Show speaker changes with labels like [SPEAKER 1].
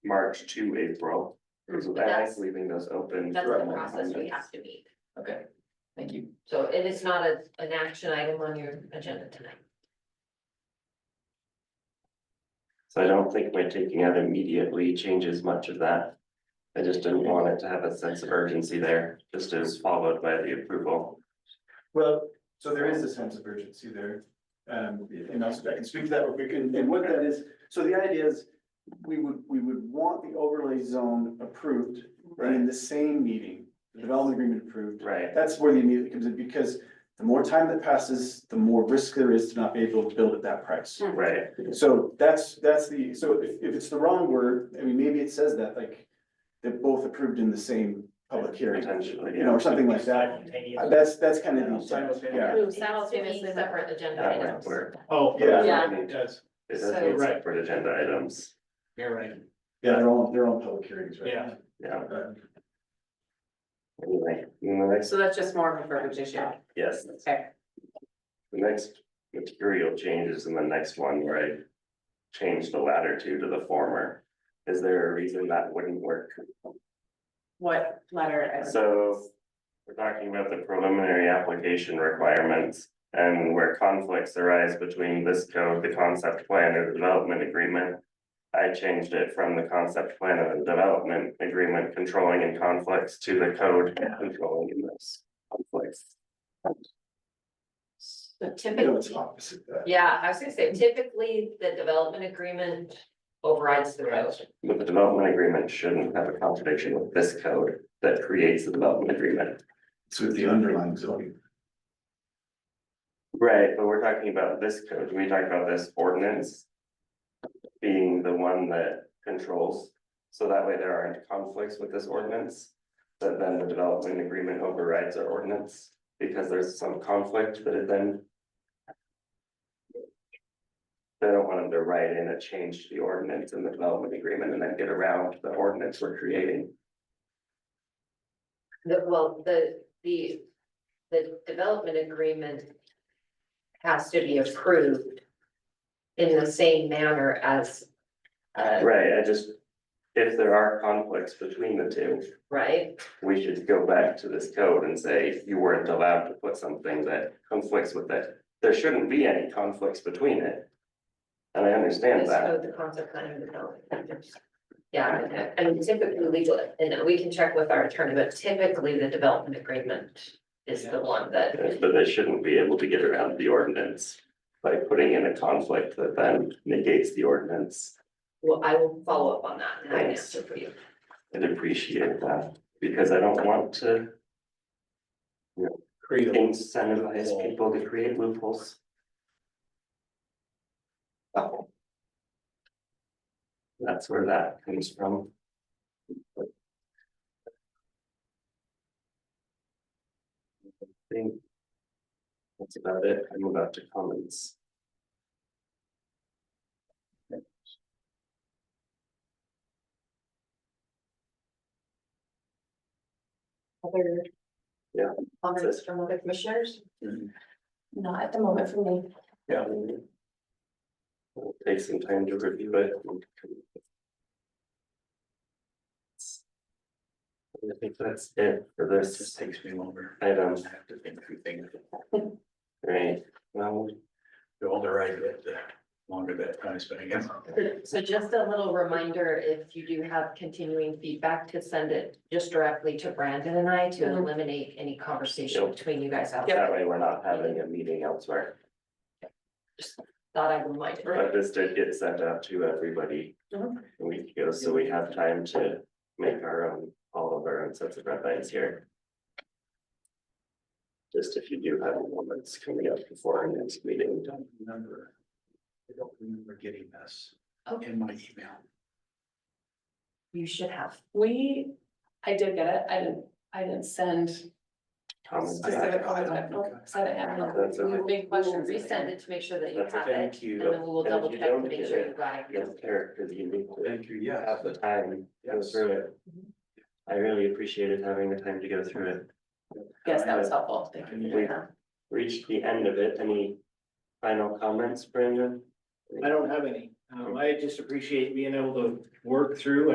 [SPEAKER 1] March to April, because
[SPEAKER 2] But
[SPEAKER 1] that's
[SPEAKER 2] That's,
[SPEAKER 1] leaving us open.
[SPEAKER 2] that's
[SPEAKER 1] for
[SPEAKER 2] the
[SPEAKER 1] more
[SPEAKER 2] process we
[SPEAKER 1] amendments.
[SPEAKER 2] have to meet.
[SPEAKER 3] Okay, thank you.
[SPEAKER 2] So it is not a, an action item on your agenda tonight.
[SPEAKER 1] So I don't think my taking out immediately changes much of that. I just didn't want it to have a sense of urgency there, just as followed by the approval.
[SPEAKER 4] Well, so there is a sense of urgency there. Um, and also I can speak to that real quick, and, and what that is, so the idea is, we would, we would want the overlay zone approved, right, in the same meeting, the development agreement approved.
[SPEAKER 1] Right,
[SPEAKER 4] That's where the immediate comes in, because the more time that passes, the more risk there is to not be able to build at that price.
[SPEAKER 2] Hmm.
[SPEAKER 1] right,
[SPEAKER 4] So that's, that's the, so if, if it's the wrong word, I mean, maybe it says that, like, they're both approved in the same public hearing,
[SPEAKER 1] potentially,
[SPEAKER 4] you know,
[SPEAKER 1] yeah.
[SPEAKER 4] or something like that. Uh, That's, that's kind of the intent,
[SPEAKER 3] Simultaneous.
[SPEAKER 4] yeah.
[SPEAKER 2] Simultaneously separate agenda
[SPEAKER 1] That
[SPEAKER 2] items.
[SPEAKER 1] might work.
[SPEAKER 3] Oh,
[SPEAKER 4] Yeah.
[SPEAKER 2] Yeah.
[SPEAKER 1] It does
[SPEAKER 3] yes,
[SPEAKER 1] need separate agenda items,
[SPEAKER 3] you're right.
[SPEAKER 4] Yeah, they're all, they're all public hearings, right?
[SPEAKER 3] Yeah.
[SPEAKER 1] yeah,
[SPEAKER 4] Uh,
[SPEAKER 1] anyway, and the next,
[SPEAKER 5] So that's just more of a verbiage issue.
[SPEAKER 1] yes,
[SPEAKER 5] Okay.
[SPEAKER 1] the next material change is in the next one, where I Change the latter two to the former, is there a reason that wouldn't work?
[SPEAKER 5] What letter? is-
[SPEAKER 1] So we're talking about the preliminary application requirements and where conflicts arise between this code, the concept plan or the development agreement. I changed it from the concept plan and the development agreement controlling in conflicts to the code controlling in those conflicts.
[SPEAKER 2] So
[SPEAKER 4] You know, it's
[SPEAKER 2] typically,
[SPEAKER 4] opposite that.
[SPEAKER 2] yeah, I was gonna say typically the development agreement overrides the code.
[SPEAKER 1] But the development agreement shouldn't have a contradiction with this code that creates the development agreement.
[SPEAKER 4] It's with the underlying zoning.
[SPEAKER 1] Right, but we're talking about this code, we talked about this ordinance. Being the one that controls, so that way there aren't conflicts with this ordinance. That then the development agreement overrides our ordinance, because there's some conflict that it then. They don't want them to write in a change to the ordinance and the development agreement and then get around the ordinance we're creating.
[SPEAKER 2] The, well, the, the, the development agreement has to be approved in the same manner as, uh,
[SPEAKER 1] Right, I just, if there are conflicts between the two.
[SPEAKER 2] right?
[SPEAKER 1] we should go back to this code and say, you weren't allowed to put something that conflicts with it. There shouldn't be any conflicts between it. And I understand
[SPEAKER 2] This
[SPEAKER 1] that,
[SPEAKER 2] code, the concept plan and the development. Yeah, and- and typically legal, and we can check with our attorney, but typically the development agreement is the one that,
[SPEAKER 1] but they shouldn't be able to get around the ordinance by putting in a conflict that then negates the ordinance.
[SPEAKER 2] well, I will follow up on that and I can
[SPEAKER 1] Thanks.
[SPEAKER 2] answer for you.
[SPEAKER 1] I'd appreciate that, because I don't want to
[SPEAKER 3] Creative.
[SPEAKER 1] incentivize people to create loopholes. Oh. That's where that comes from. I think That's about it, I'm about to comments.
[SPEAKER 6] Other.
[SPEAKER 1] Yeah.
[SPEAKER 6] Comments from other commissioners?
[SPEAKER 1] Mhm.
[SPEAKER 6] Not at the moment for me.
[SPEAKER 1] Yeah. It'll Take some time to review it. I think that's it for
[SPEAKER 3] This just
[SPEAKER 1] this
[SPEAKER 3] takes me longer.
[SPEAKER 1] item.
[SPEAKER 3] I have to think through things.
[SPEAKER 1] Right, well,
[SPEAKER 3] The older I get, the longer that time spending.
[SPEAKER 2] So just a little reminder, if you do have continuing feedback, to send it just directly to Brandon and I to
[SPEAKER 5] Mhm.
[SPEAKER 2] eliminate any conversation
[SPEAKER 1] Yep.
[SPEAKER 2] between you guys. out there.
[SPEAKER 1] that way we're not having a meeting elsewhere,
[SPEAKER 2] Thought I would remind. you.
[SPEAKER 1] but this did get sent out to everybody. A
[SPEAKER 5] Mhm.
[SPEAKER 1] week ago, so we have time to make our own, all of our own sets of red lines here. Just if you do have moments coming up before our next meeting,
[SPEAKER 3] I don't remember. I don't remember getting this
[SPEAKER 2] Okay.
[SPEAKER 3] in my email.
[SPEAKER 2] You should have.
[SPEAKER 6] We, I did get it. I didn't, I didn't send
[SPEAKER 1] comments.
[SPEAKER 6] specific comments. I don't- I didn't have it.
[SPEAKER 1] That's
[SPEAKER 6] We
[SPEAKER 1] okay.
[SPEAKER 6] will make
[SPEAKER 2] We will
[SPEAKER 6] questions.
[SPEAKER 2] resend it to make sure that you
[SPEAKER 1] That's
[SPEAKER 2] have
[SPEAKER 1] okay.
[SPEAKER 2] it,
[SPEAKER 3] Thank
[SPEAKER 2] and
[SPEAKER 3] you.
[SPEAKER 2] then we will
[SPEAKER 1] And if
[SPEAKER 2] double
[SPEAKER 1] you
[SPEAKER 2] check to
[SPEAKER 1] don't
[SPEAKER 2] make
[SPEAKER 1] get
[SPEAKER 2] sure
[SPEAKER 1] it,
[SPEAKER 2] you got it.
[SPEAKER 1] Yes, Eric, because you need to
[SPEAKER 3] Thank you, yes.
[SPEAKER 1] have the time, to go
[SPEAKER 3] Yes.
[SPEAKER 1] through it. I really appreciated having the time to go through it.
[SPEAKER 6] Yes, that was helpful. Thank you.
[SPEAKER 1] We reached the end of it. Any final comments, Brandon?
[SPEAKER 7] I don't have any. Um, I just appreciate being able to work through